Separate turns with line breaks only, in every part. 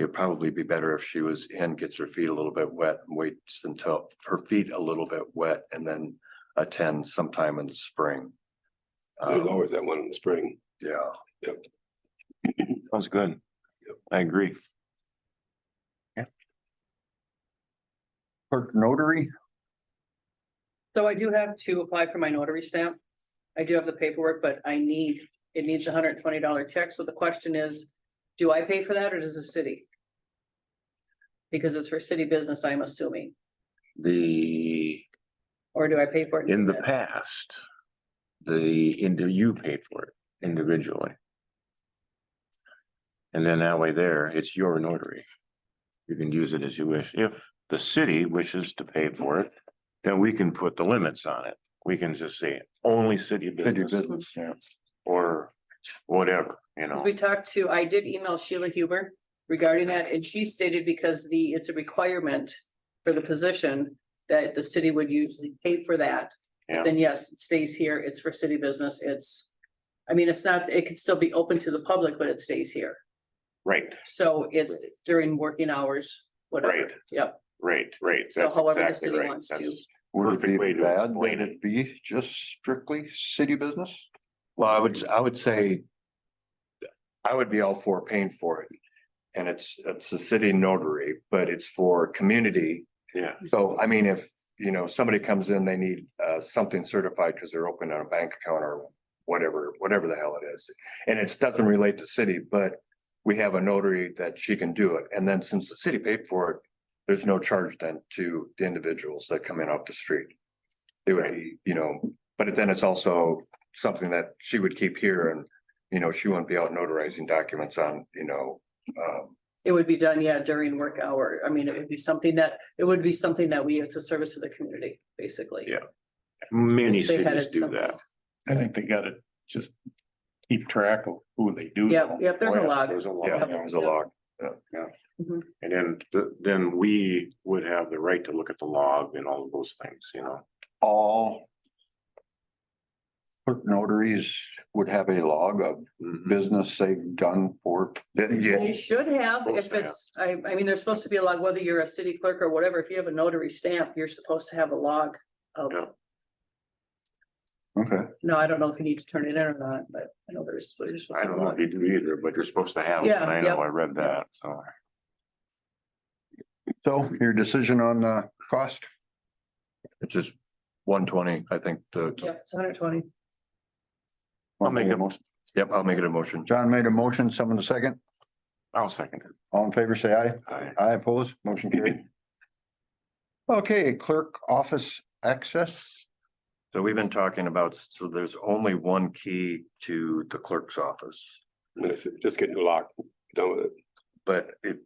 It'd probably be better if she was in, gets her feet a little bit wet, and waits until her feet a little bit wet and then attend sometime in the spring.
There's
Um,
always that one in the spring.
yeah,
Sounds good. I agree. Clerk notary,
So I do have to apply for my notary stamp. I do have the paperwork, but I need, it needs a hundred and twenty dollar check, so the question is, do I pay for that or does the city? Because it's for city business, I'm assuming,
The,
or do I pay for it?
in the past, the, into you paid for it individually. And then that way there, it's your notary. You can use it as you wish. If the city wishes to pay for it, then we can put the limits on it. We can just say only city
city
business
business, yeah.
or whatever, you know.
We talked to, I did email Sheila Huber regarding that, and she stated because the, it's a requirement for the position that the city would usually pay for that.
Yeah.
Then yes, it stays here, it's for city business, it's, I mean, it's not, it could still be open to the public, but it stays here.
Right,
So it's during working hours, whatever.
Right.
Yep,
right, right.
So
That's
however the
exactly
city
right.
wants to.
That's-
Would
Perfect
it
way
be
to
bad
explain
that it be just strictly city business?
well, I would, I would say. I would be all for paying for it. And it's, it's a city notary, but it's for community.
Yeah.
So I mean, if, you know, somebody comes in, they need uh something certified because they're opening a bank account or whatever, whatever the hell it is. And it doesn't relate to city, but we have a notary that she can do it. And then since the city paid for it, there's no charge then to the individuals that come in off the street. It would be, you know, but then it's also something that she would keep here and, you know, she wouldn't be out notarizing documents on, you know, um,
it would be done, yeah, during work hour. I mean, it would be something that, it would be something that we, it's a service to the community, basically.
Yeah. Many
If they had
cities
it
do
something.
that.
I think they gotta just keep track of who they do.
Yep, yep, there's a lot.
Oh, There's a lot.
yeah, there's a log.
And then, th- then we would have the right to look at the log and all of those things, you know?
All clerk notaries would have a log of business they've done for.
Yeah,
You should have,
Supposed
if
to have.
it's, I, I mean, there's supposed to be a log, whether you're a city clerk or whatever, if you have a notary stamp, you're supposed to have a log of,
Yeah.
Okay,
no, I don't know if you need to turn it in or not, but I know there's. there's-
I don't know if you do either, but you're supposed to have, it.
Yeah,
I
yep.
know, I read that, so.
so your decision on the cost?
It's just one twenty, I think
Yeah,
the,
it's hundred twenty.
I'll make a
motion.
yep, I'll make it a motion.
John made a motion, someone a second.
I'll second it.
All in favor, say aye.
Aye.
Aye, opposed, motion carried. Okay, clerk office access.
So we've been talking about, so there's only one key to the clerk's office,
And it's just getting the lock, done with it.
but it.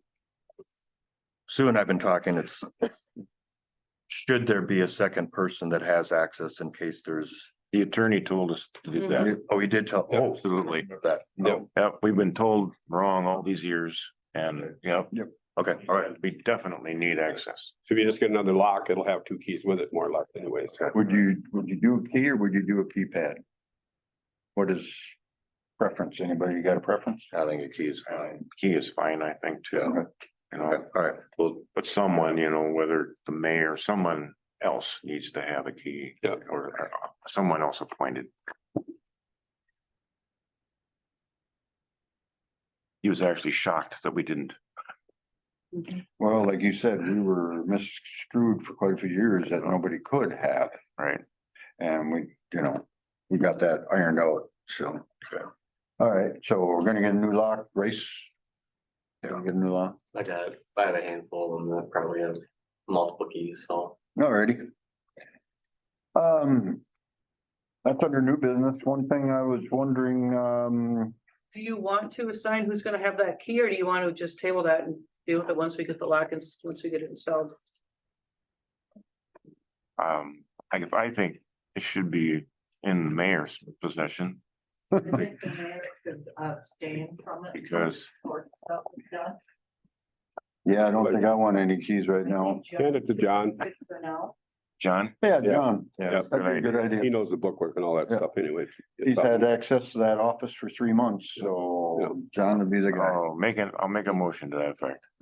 Sue and I've been talking, it's. Should there be a second person that has access in case there's,
The attorney told us to do that.
oh, you did tell, oh,
Mm-hmm. Absolutely.
that,
Yep.
Yep, we've been told wrong all these years and, yep.
okay, all right.
We definitely need access.
So if you just get another lock, it'll have two keys with it more luck anyways.
Would you, would you do a key or would you do a keypad? What is preference? Anybody got a preference?
I think a key is fine.
Key is fine, I think, too. You know,
Okay, all right, well,
But someone, you know, whether the mayor, someone else needs to have a key
Yeah.
or uh, someone else appointed. He was actually shocked that we didn't.
Well, like you said, we were misconstrued for quite a few years that nobody could have.
Right.
And we, you know, we got that ironed out, so.
Okay.
All right, so we're gonna get a new lock, race.
Yeah.
Get a new lock.
Like a, I have a handful of them that probably have multiple keys, so.
Alrighty. Um. That's under new business. One thing I was wondering, um,
Do you want to assign who's gonna have that key, or do you want to just table that and deal with it once we get the lock and, once we get it installed?
Um, I, I think it should be in the mayor's possession
I think the mayor should abstain from it.
because
Or stuff is done.
yeah, I don't think I want any keys right now.
I think Jeff
Hand it to John.
should For now.
John?
Yeah,
Yeah.
John,
Yeah.
that'd be a good idea.
He knows the bookwork and all that
Yeah.
stuff anyway.
He's had access to that office for three months, so John would be the guy.
Oh, make an, I'll make a motion to that effect.